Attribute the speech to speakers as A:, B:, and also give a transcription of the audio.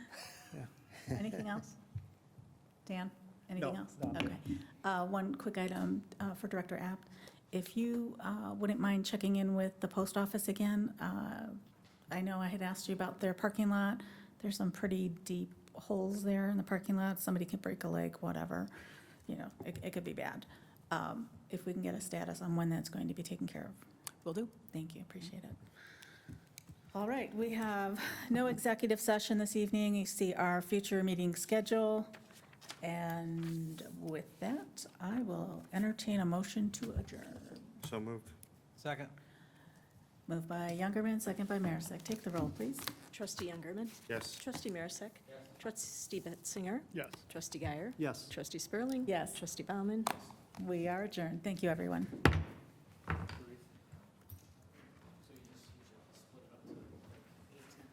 A: Anything else? Dan, anything
B: No,
A: else?
B: no.
A: Okay. Uh, One quick item uh, for Director Apt. If you uh, wouldn't mind checking in with the post office again, uh, I know I had asked you about their parking lot. There's some pretty deep holes there in the parking lot. Somebody could break a leg, whatever. You know, it it could be bad. Um, If we can get a status on when that's going to be taken care of.
C: Will do.
A: Thank you, appreciate it. All right, we have no executive session this evening. You see our future meeting schedule. And with that, I will entertain a motion to adjourn.
D: So moved.
B: Second.
A: Moved by Youngerman, second by Marisak. Take the roll, please.
C: Trustee Youngerman.
D: Yes.
C: Trustee Marisak. Trustee Betzinger.
B: Yes.
C: Trustee Guyer.
B: Yes.
C: Trustee Spurling.
A: Yes.
C: Trustee Bauman.
A: We are adjourned. Thank you, everyone.